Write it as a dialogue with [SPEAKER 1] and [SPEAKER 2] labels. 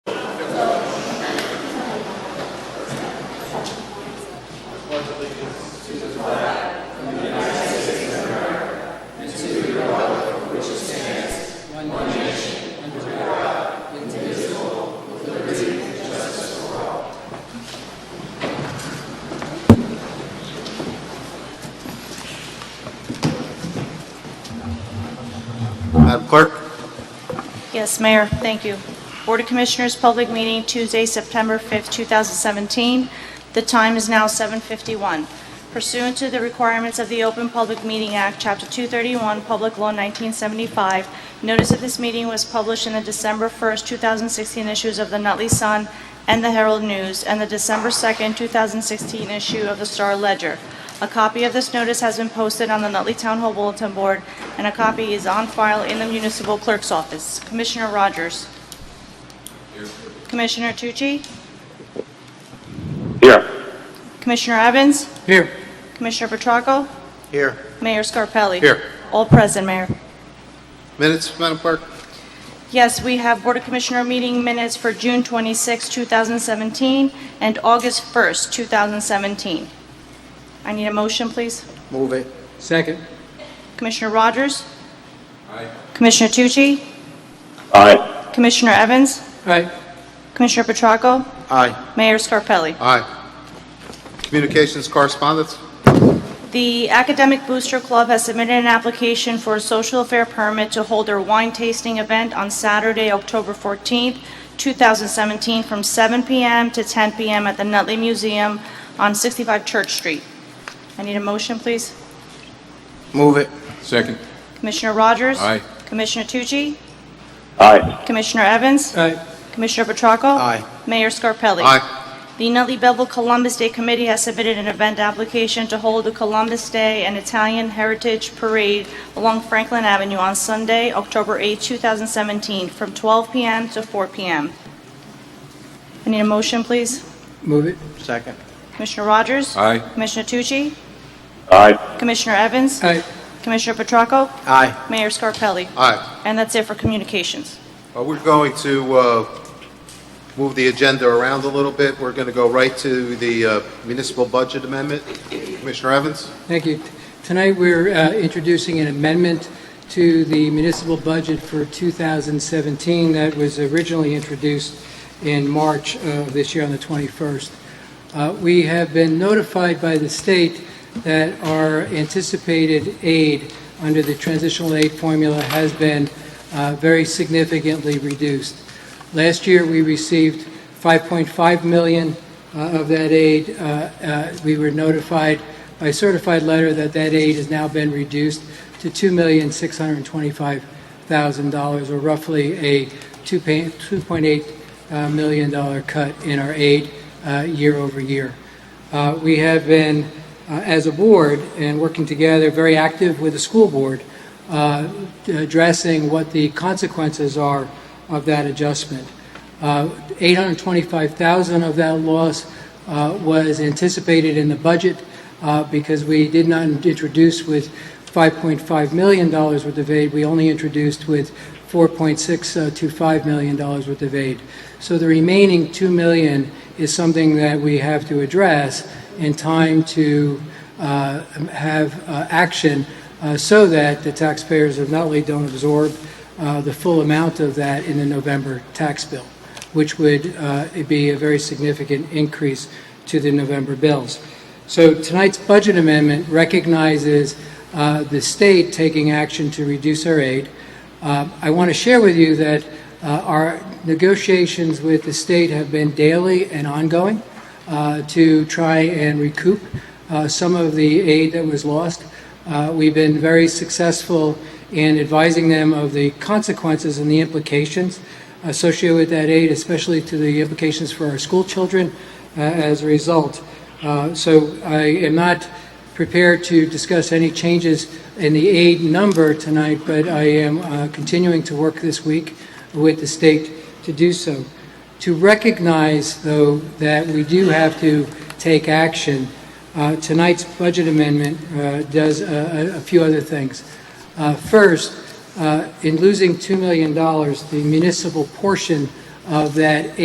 [SPEAKER 1] Yes, Mayor, thank you. Board of Commissioners, public meeting Tuesday, September 5th, 2017. The time is now 7:51. Pursuant to the requirements of the Open Public Meeting Act, Chapter 231, Public Law 1975, notice of this meeting was published in the December 1st, 2016 issues of the Nutley Sun and the Herald News, and the December 2nd, 2016 issue of the Star Ledger. A copy of this notice has been posted on the Nutley Town Hall Bulletin Board, and a copy is on file in the municipal clerk's office. Commissioner Rogers? Commissioner Tucci?
[SPEAKER 2] Here.
[SPEAKER 1] Commissioner Evans?
[SPEAKER 2] Here.
[SPEAKER 1] Commissioner Petracco?
[SPEAKER 2] Here.
[SPEAKER 1] Mayor Scarpelli?
[SPEAKER 2] Here.
[SPEAKER 1] All present, Mayor.
[SPEAKER 2] Minutes, Madam Clerk?
[SPEAKER 1] Yes, we have Board of Commissioner meeting minutes for June 26, 2017, and August 1, 2017. I need a motion, please.
[SPEAKER 2] Move it.
[SPEAKER 3] Second.
[SPEAKER 1] Commissioner Rogers? Commissioner Tucci?
[SPEAKER 2] Aye.
[SPEAKER 1] Commissioner Evans?
[SPEAKER 3] Aye.
[SPEAKER 1] Commissioner Petracco?
[SPEAKER 2] Aye.
[SPEAKER 1] Mayor Scarpelli?
[SPEAKER 2] Aye. Communications correspondence?
[SPEAKER 1] The Academic Booster Club has submitted an application for a social affair permit to hold their wine tasting event on Saturday, October 14th, 2017, from 7 p.m. to 10 p.m. at the Nutley Museum on 65 Church Street. I need a motion, please.
[SPEAKER 2] Move it.
[SPEAKER 4] Second.
[SPEAKER 1] Commissioner Rogers?
[SPEAKER 4] Aye.
[SPEAKER 1] Commissioner Tucci?
[SPEAKER 2] Aye.
[SPEAKER 1] Commissioner Evans?
[SPEAKER 3] Aye.
[SPEAKER 1] Commissioner Petracco?
[SPEAKER 2] Aye.
[SPEAKER 1] Mayor Scarpelli?
[SPEAKER 2] Aye.
[SPEAKER 1] The Nutley Bevel Columbus Day Committee has submitted an event application to hold the Columbus Day and Italian Heritage Parade along Franklin Avenue on Sunday, October 8, 2017, from 12 p.m. to 4 p.m. I need a motion, please.
[SPEAKER 3] Move it.
[SPEAKER 2] Second.
[SPEAKER 1] Commissioner Rogers?
[SPEAKER 4] Aye.
[SPEAKER 1] Commissioner Tucci?
[SPEAKER 2] Aye.
[SPEAKER 1] Commissioner Evans?
[SPEAKER 3] Aye.
[SPEAKER 1] Commissioner Petracco?
[SPEAKER 2] Aye.
[SPEAKER 1] Mayor Scarpelli?
[SPEAKER 2] Aye.
[SPEAKER 1] And that's it for communications.
[SPEAKER 2] Uh, We're going to uh, move the agenda around a little bit. We're going to go right to the uh, municipal budget amendment. Commissioner Evans?
[SPEAKER 3] Thank you. Tonight, we're uh, introducing an amendment to the municipal budget for 2017 that was originally introduced in March uh, of this year on the 21st. Uh, We have been notified by the state that our anticipated aid under the transitional aid formula has been uh, very significantly reduced. Last year, we received 5.5 million uh, of that aid. Uh, uh, We were notified by certified letter that that aid has now been reduced to $2,625,000, or roughly a two pa- $2.8 million dollar cut in our aid uh, year over year. Uh, We have been, uh, as a board, and working together, very active with the school board, uh, addressing what the consequences are of that adjustment. Uh, 825,000 of that loss uh, was anticipated in the budget uh, because we did not introduce with $5.5 million worth of aid, we only introduced with $4.625 million worth of aid. So the remaining $2 million is something that we have to address in time to uh, have uh, action uh, so that the taxpayers of Nutley don't absorb uh, the full amount of that in the November tax bill, which would uh, be a very significant increase to the November bills. So tonight's budget amendment recognizes uh, the state taking action to reduce our aid. Uh, I want to share with you that uh, our negotiations with the state have been daily and ongoing uh, to try and recoup uh, some of the aid that was lost. Uh, We've been very successful in advising them of the consequences and the implications associated with that aid, especially to the implications for our school children uh, as a result. Uh, So I am not prepared to discuss any changes in the aid number tonight, but I am uh, continuing to work this week with the state to do so. To recognize, though, that we do have to take action, uh, tonight's budget amendment uh, does a a- a few other things. Uh, First, uh, in losing $2 million, the municipal portion of that